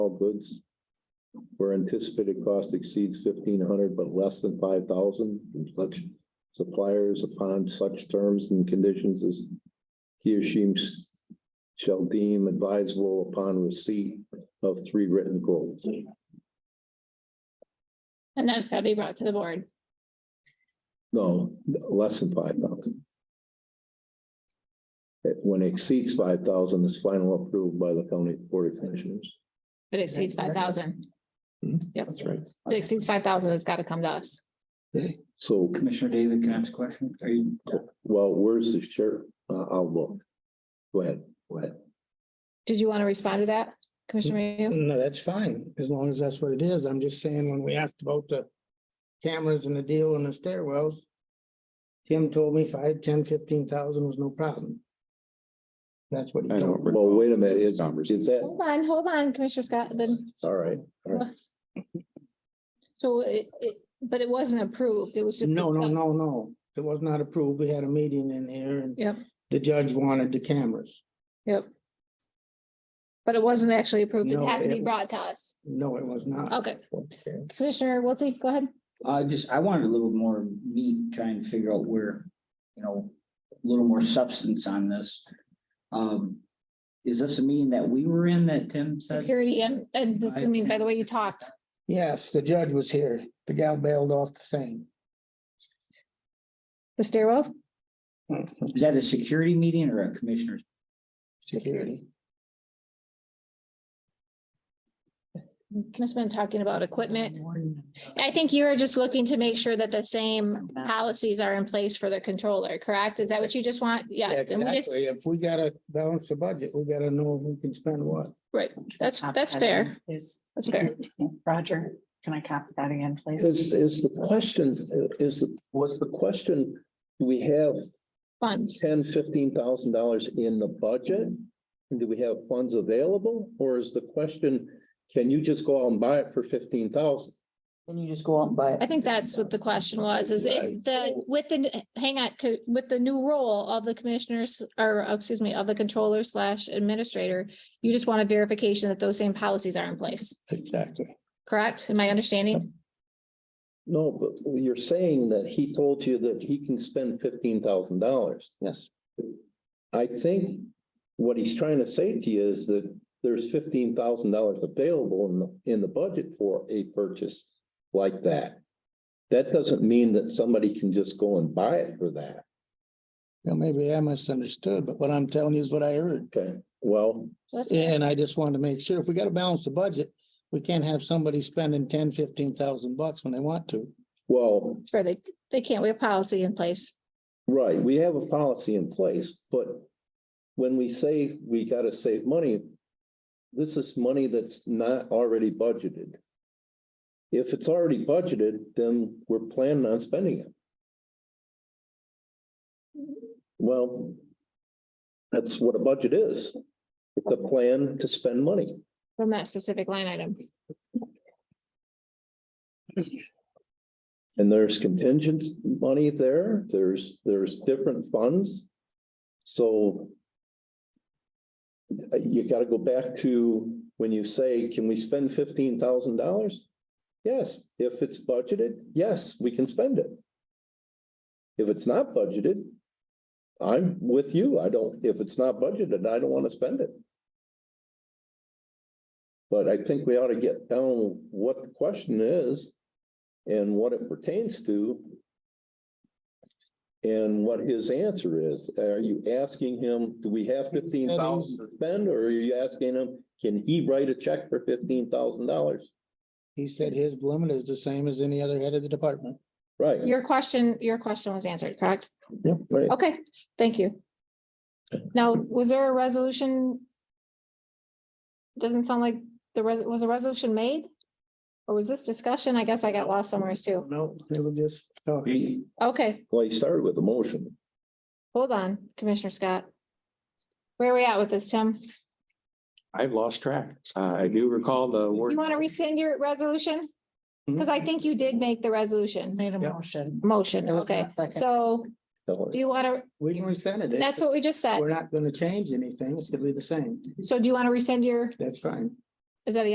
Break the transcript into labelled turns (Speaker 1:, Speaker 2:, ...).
Speaker 1: all goods where anticipated cost exceeds fifteen hundred but less than five thousand from such suppliers upon such terms and conditions as he or she shall deem advisable upon receipt of three written quotes.
Speaker 2: And that's gotta be brought to the board.
Speaker 1: No, less than five thousand. When it exceeds five thousand, it's final approved by the county board of commissioners.
Speaker 2: If it exceeds five thousand.
Speaker 1: Hmm,
Speaker 2: Yep.
Speaker 3: That's right.
Speaker 2: If it exceeds five thousand, it's gotta come to us.
Speaker 1: So,
Speaker 3: Commissioner David, can I ask a question? Are you?
Speaker 1: well, where's the sheriff? Uh, I'll look. Go ahead.
Speaker 3: What?
Speaker 2: Did you want to respond to that, Commissioner Mayhew?
Speaker 4: No, that's fine, as long as that's what it is. I'm just saying, when we asked about the cameras and the deal and the stairwells. Tim told me five, ten, fifteen thousand was no problem. That's what he
Speaker 5: I
Speaker 4: told
Speaker 5: don't
Speaker 4: me.
Speaker 1: Well, wait a minute, is, is that,
Speaker 2: Hold on, hold on, Commissioner Scott, then.
Speaker 1: all right, all right.
Speaker 2: So it, it, but it wasn't approved. It was just.
Speaker 4: No, no, no, no, it was not approved. We had a meeting in here and.
Speaker 2: Yep.
Speaker 4: The judge wanted the cameras.
Speaker 2: But it wasn't actually approved. It
Speaker 4: No,
Speaker 2: had to be
Speaker 4: it-
Speaker 2: brought to us.
Speaker 4: No, it was not.
Speaker 2: Okay, Commissioner Wiltie, go ahead.
Speaker 3: Uh, just, I wanted a little more meat, trying to figure out where, you know, a little more substance on this. Um, is this a meeting that we were in that Tim said?
Speaker 2: Security and, and assuming by the way you talked.
Speaker 4: Yes, the judge was here. The gal bailed off the thing.
Speaker 2: The stairwell?
Speaker 3: Is that a security meeting or a commissioner's?
Speaker 4: Security.
Speaker 2: Must have been talking about equipment. I think you are just looking to make sure that the same policies are in place for the controller, correct? Is that what you just want?
Speaker 4: Yeah,
Speaker 2: Yes, and we just,
Speaker 4: Exactly. If we gotta balance the budget, we gotta know who can spend what.
Speaker 2: right, that's, that's fair,
Speaker 6: Is,
Speaker 2: that's fair.
Speaker 6: Roger, can I copy that again, please?
Speaker 1: Is, is the question, is the, was the question, do we have
Speaker 2: Fun.
Speaker 1: ten, fifteen thousand dollars in the budget? And do we have funds available? Or is the question, can you just go out and buy it for fifteen thousand?
Speaker 6: Can you just go out and buy
Speaker 2: I think that's what the question was, is it the, with the, hang on, co- with the new role of the commissioners, or oh, excuse me, of the controller slash administrator, you just want a verification that those same policies are in place,
Speaker 4: Exactly.
Speaker 2: correct? Am I understanding?
Speaker 1: No, but you're saying that he told you that he can spend fifteen thousand dollars.
Speaker 4: Yes.
Speaker 1: I think what he's trying to say to you is that there's fifteen thousand dollars available in the, in the budget for a purchase like that. That doesn't mean that somebody can just go and buy it for that.
Speaker 4: Now, maybe I misunderstood, but what I'm telling you is what I heard.
Speaker 1: Okay, well,
Speaker 2: That's-
Speaker 4: And I just wanted to make sure, if we gotta balance the budget, we can't have somebody spending ten, fifteen thousand bucks when they want to.
Speaker 1: well,
Speaker 2: Sure, they, they can't, we have policy in place.
Speaker 1: Right, we have a policy in place, but when we say we gotta save money, this is money that's not already budgeted. If it's already budgeted, then we're planning on spending it. Well, that's what a budget is. It's a plan to spend money.
Speaker 2: from that specific line item.
Speaker 1: And there's contingent money there, there's, there's different funds. So. uh, You gotta go back to when you say, can we spend fifteen thousand dollars? Yes, if it's budgeted, yes, we can spend it. If it's not budgeted. I'm with you, I don't, if it's not budgeted, I don't wanna spend it. But I think we ought to get down what the question is and what it pertains to. And what his answer is. Are you asking him, do we have fifteen thousand to spend, or are you asking him, can he write a check for fifteen thousand dollars?
Speaker 4: He said his limit is the same as any other head of the department.
Speaker 1: Right,
Speaker 2: Your question, your question was answered, correct?
Speaker 1: right.
Speaker 2: Okay, thank you. Now, was there a resolution? Doesn't sound like the res, was a resolution made? Or was this discussion? I guess I got lost somewhere too.
Speaker 4: No, they were just talking.
Speaker 3: We-
Speaker 2: Okay,
Speaker 1: Well, he started with a motion.
Speaker 2: hold on, Commissioner Scott. Where are we at with this, Tim?
Speaker 5: I've lost track. Uh, I do recall the word.
Speaker 2: You want to rescind your resolution?
Speaker 6: Mm-hmm.
Speaker 2: Because I think you did make the resolution,
Speaker 6: Made a
Speaker 4: Yep.
Speaker 6: motion.
Speaker 2: motion,
Speaker 6: There was
Speaker 2: okay.
Speaker 6: not second.
Speaker 2: So do you want to,
Speaker 4: We can rescind it.
Speaker 2: that's what we just said.
Speaker 4: We're not gonna change anything. It's gonna be the same.
Speaker 2: So do you want to rescind your,
Speaker 4: That's fine.
Speaker 2: is that a